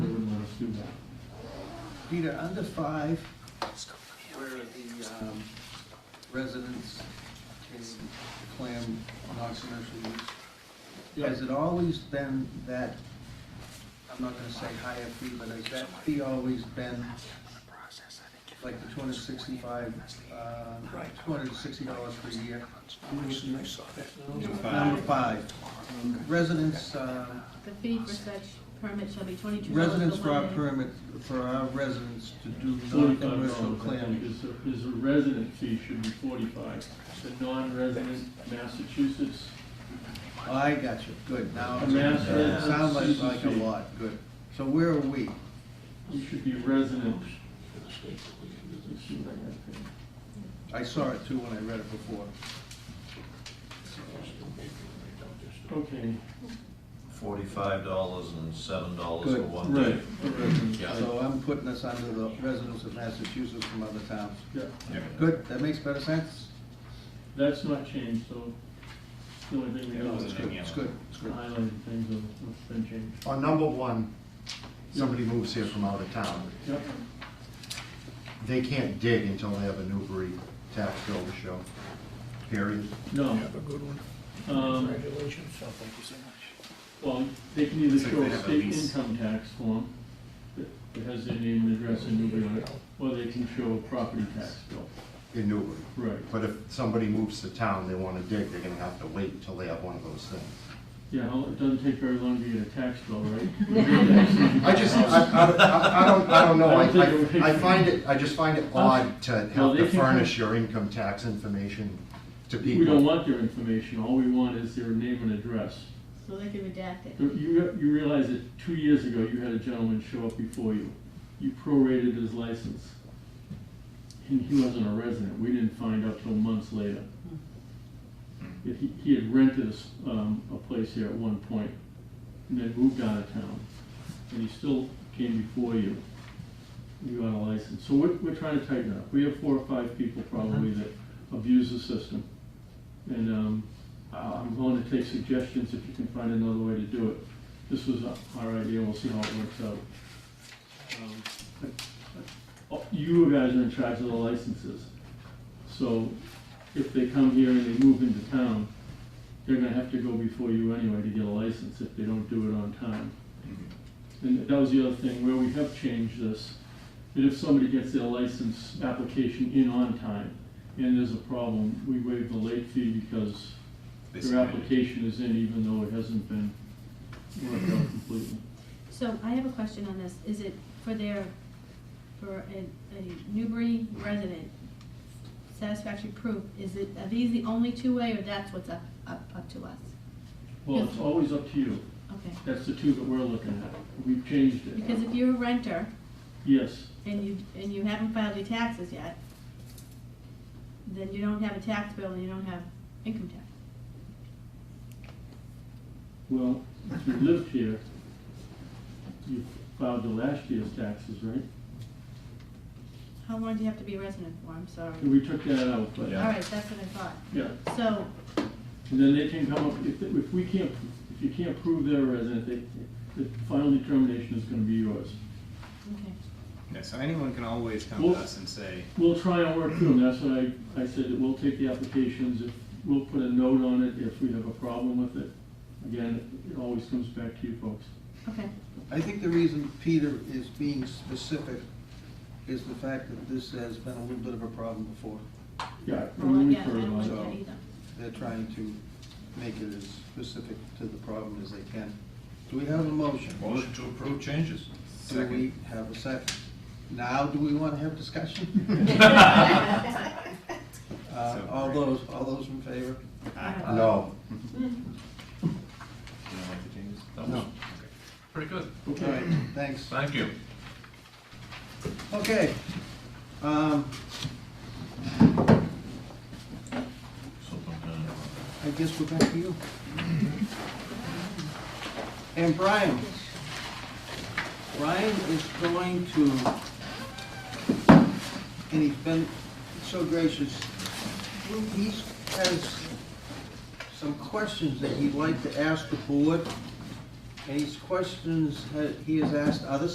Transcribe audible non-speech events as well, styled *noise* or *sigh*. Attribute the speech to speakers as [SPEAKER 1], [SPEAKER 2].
[SPEAKER 1] Peter, under five, where the um, residents can claim non-commercial use, has it always been that, I'm not gonna say higher fee, but has that fee always been like the two hundred sixty-five, uh, two hundred sixty dollars per year? Number five, residents, uh,
[SPEAKER 2] The fee for such permit shall be twenty-two dollars.
[SPEAKER 1] Residents for our permit, for our residents to do
[SPEAKER 3] Forty-five
[SPEAKER 1] non-commercial
[SPEAKER 3] dollars, I think,
[SPEAKER 1] clamming.
[SPEAKER 3] is, the- is a resident fee should be forty-five. The non-resident Massachusetts,
[SPEAKER 1] Oh, I got you, good, now,
[SPEAKER 3] A mass
[SPEAKER 1] it sounds like,
[SPEAKER 3] residence
[SPEAKER 1] like a
[SPEAKER 3] fee.
[SPEAKER 1] lot, good. So where are we?
[SPEAKER 3] you should be resident.
[SPEAKER 1] I saw it too when I read it before.
[SPEAKER 3] Okay,
[SPEAKER 4] Forty-five dollars and seven dollars for
[SPEAKER 1] Good.
[SPEAKER 4] one
[SPEAKER 3] right,
[SPEAKER 4] day.
[SPEAKER 3] a resident.
[SPEAKER 4] Yeah.
[SPEAKER 1] So I'm putting us under the residents of Massachusetts from other towns.
[SPEAKER 3] Yeah,
[SPEAKER 1] Good, that makes better sense?
[SPEAKER 3] that's not changed, so it's the only thing we
[SPEAKER 1] No,
[SPEAKER 3] have is
[SPEAKER 1] It's good, it's good, it's good.
[SPEAKER 3] highlighted things that have been changed.
[SPEAKER 5] On number one, somebody moves here from out of town.
[SPEAKER 3] Yep,
[SPEAKER 5] They can't dig until they have a Newbury tax bill to show, period.
[SPEAKER 3] no.
[SPEAKER 6] Have a good one.
[SPEAKER 3] Um,
[SPEAKER 6] Congratulations. So thank you so much.
[SPEAKER 3] Well, they can either
[SPEAKER 4] It's like
[SPEAKER 3] show
[SPEAKER 4] they
[SPEAKER 3] a
[SPEAKER 4] have a
[SPEAKER 3] state
[SPEAKER 4] lease.
[SPEAKER 3] income tax form that that has their name and address and Newbury on it, or they can show a property tax bill.
[SPEAKER 5] in Newbury.
[SPEAKER 3] Right,
[SPEAKER 5] But if somebody moves to town, they wanna dig, they're gonna have to wait until they have one of those things.
[SPEAKER 3] yeah, well, it doesn't take very long to get a tax bill, right?
[SPEAKER 5] *laughs* I just, I, I, I don't, I don't know,
[SPEAKER 3] I don't think it
[SPEAKER 5] I, I, I
[SPEAKER 3] would-
[SPEAKER 5] find it, I just find it odd to
[SPEAKER 3] Well,
[SPEAKER 5] have
[SPEAKER 3] they
[SPEAKER 5] to
[SPEAKER 3] can-
[SPEAKER 5] furnish your income tax information to
[SPEAKER 3] We don't
[SPEAKER 5] people.
[SPEAKER 3] want
[SPEAKER 4] *laughs*
[SPEAKER 3] their information, all we want is their name and address.
[SPEAKER 2] So they can redact it.
[SPEAKER 3] You, you realize that two years ago, you had a gentleman show up before you, you prorated his license. And he wasn't a resident, we didn't find out till months later. That he, he had rented a, s- um, a place here at one point, and then moved out of town, and he still came before you. You got a license, so we're, we're trying to tighten up, we have four or five people probably that abuse the system. And um, I- I'm willing to take suggestions if you can find another way to do it. This was our idea, we'll see how it works out. Um, but- but, uh, You guys are in charge of the licenses. So if they come here and they move into town, they're gonna have to go before you anyway to get a license if they don't do it on time. And that was the other thing, where we have changed this, that if somebody gets their license application in on time and there's a problem, we waive the late fee because their application is in even though it hasn't been worked out completely.
[SPEAKER 2] So I have a question on this. Is it for their, for a, a Newbury resident satisfactory proof? Is it, are these the only two-way or that's what's up, up, up to us?
[SPEAKER 3] Well, it's always up to you.
[SPEAKER 2] Okay.
[SPEAKER 3] That's the two that we're looking at. We've changed
[SPEAKER 2] Because
[SPEAKER 3] it.
[SPEAKER 2] if you're a renter
[SPEAKER 3] Yes,
[SPEAKER 2] and you, and you haven't filed your taxes yet, then you don't have a tax bill and you don't have income tax.
[SPEAKER 3] well, if you lived here, you filed the last year's taxes, right?
[SPEAKER 2] How long do you have to be a resident for? I'm sorry.
[SPEAKER 3] And we took that out, but,
[SPEAKER 4] Yeah.
[SPEAKER 2] All right, that's what I thought.
[SPEAKER 3] yeah.
[SPEAKER 2] So,
[SPEAKER 3] And then they can come up, if, if we can't, if you can't prove they're a resident, they, the final determination is gonna be yours.
[SPEAKER 2] okay.
[SPEAKER 7] Yeah, so anyone can always come
[SPEAKER 3] Well-
[SPEAKER 7] to us and say,
[SPEAKER 3] We'll try and work through them, that's what I, I said, that we'll take the applications, if, we'll put a note on it if we have a problem with it. Again, it always comes back to you folks.
[SPEAKER 2] Okay,
[SPEAKER 1] I think the reason Peter is being specific is the fact that this has been a little bit of a problem before.
[SPEAKER 3] Yeah.
[SPEAKER 2] well,
[SPEAKER 3] we
[SPEAKER 2] yeah, I
[SPEAKER 3] refer it
[SPEAKER 2] don't like
[SPEAKER 3] on.
[SPEAKER 2] that either. *laughs*
[SPEAKER 1] They're trying to make it as specific to the problem as they can. Do we have a motion?
[SPEAKER 4] Motion to approve changes.
[SPEAKER 1] Do we have a second? Now, do we want to have discussion?
[SPEAKER 2] *laughs*
[SPEAKER 1] Uh,
[SPEAKER 7] So-
[SPEAKER 1] All those, all those in favor?
[SPEAKER 2] All right.
[SPEAKER 5] No,
[SPEAKER 7] you don't like the changes?
[SPEAKER 4] That
[SPEAKER 5] No.
[SPEAKER 4] was pretty good.
[SPEAKER 1] All right, thanks.
[SPEAKER 4] Thank you.
[SPEAKER 1] Okay. Um,
[SPEAKER 4] Something, uh,
[SPEAKER 1] I guess we're back to you. And Brian. Brian is going to, and he's been so gracious, he has some questions that he'd like to ask the board. And these questions that he has asked other